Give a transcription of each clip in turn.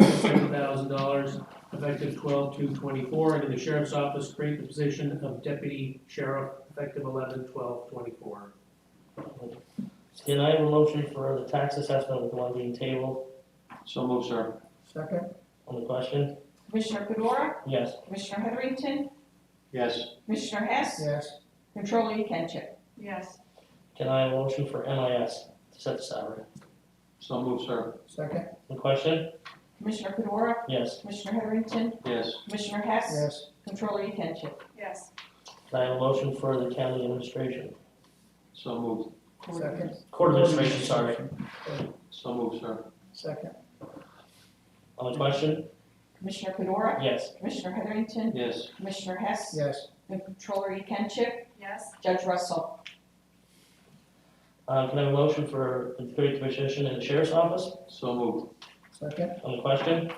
fifty-seven thousand dollars effective twelve two twenty-four, and in the sheriff's office, create the position of deputy sheriff effective eleven twelve twenty-four. Can I have a motion for the tax assessment with one being tabled So move, sir. Second? on the question? Commissioner Fedora, Yes. Commissioner Heatherington, Yes. Commissioner Hess, Yes. Controller Yekenship. Yes. Can I have a motion for MIS to set the salary? So move, sir. Second? On the question? Commissioner Fedora, Yes. Commissioner Heatherington, Yes. Commissioner Hess, Yes. Controller Yekenship. Yes. Can I have a motion for the county administration? So move. Second? Court administration, sorry. So move, sir. Second? On the question? Commissioner Fedora, Yes. Commissioner Heatherington, Yes. Commissioner Hess, Yes. and Controller Yekenship. Yes. Judge Russell. Uh, can I have a motion for the third position in the sheriff's office? So move. Second? On the question?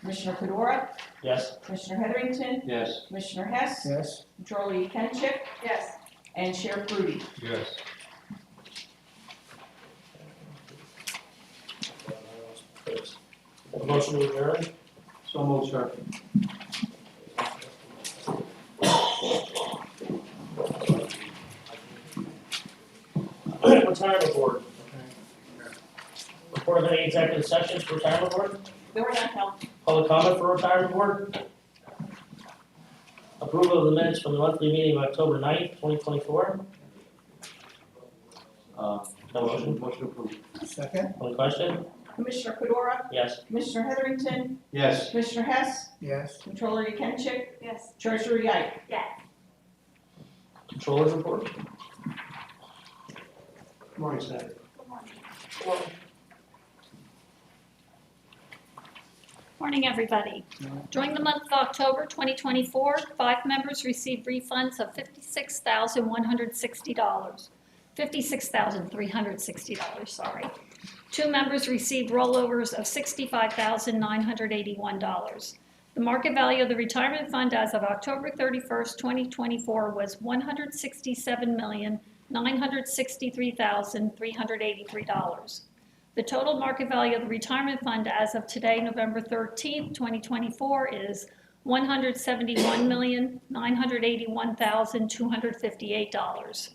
Commissioner Fedora, Yes. Commissioner Heatherington, Yes. Commissioner Hess, Yes. Controller Yekenship. Yes. And Sheriff Rudy. Yes. A motion to adjourn? So move, sir. Retirement board. Report of any executive sessions for retirement board? There were none held. Public comment for retirement board? Approval of the minutes from the monthly meeting of October 9th, twenty twenty-four? Uh, No motion. Motion approved. Second? On the question? Commissioner Fedora, Yes. Commissioner Heatherington, Yes. Commissioner Hess, Yes. Controller Yekenship, Yes. Treasurer Yike. Controllers report? Good Morning, Seth. Morning, everybody. During the month of October 2024, five members received refunds of $56,160. $56,360, sorry. Two members received rollovers of $65,981. The market value of the retirement fund as of October 31st, 2024 was $167,963,383. The total market value of the retirement fund as of today, November 13th, 2024, is $171,981,258.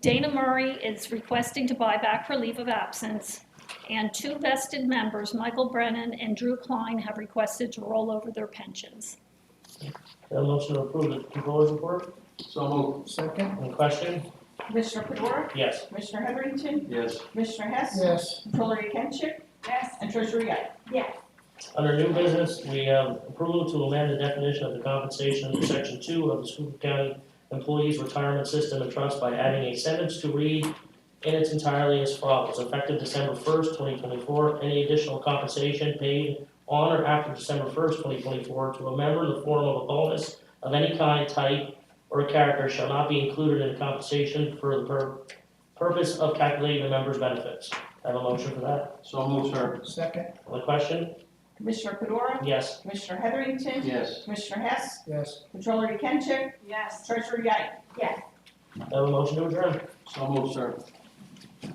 Dana Murray is requesting to buy back her leave of absence, and two vested members, Michael Brennan and Drew Klein, have requested to roll over their pensions. Can I have a motion to approve the controllers report? So move. Second? On the question? Commissioner Fedora, Yes. Commissioner Heatherington, Yes. Commissioner Hess, Yes. Controller Yekenship. Yes. And Treasurer Yike. Under new business, we have approval to amend the definition of the compensation under section two of the Schuylkill County Employees Retirement System and Trust by adding a sentence to read in its entirety as follows. Effective December first, twenty twenty-four, any additional compensation paid on or after December first, twenty twenty-four to a member in the form of a bonus of any kind, type, or character shall not be included in the compensation for the pur- purpose of calculating the member's benefits. I Have a motion for that. So move, sir. Second? On the question? Commissioner Fedora, Yes. Commissioner Heatherington, Yes. Commissioner Hess, Yes. Controller Yekenship. Yes. Treasurer Yike. Yes. I Have a motion to adjourn. So move, sir.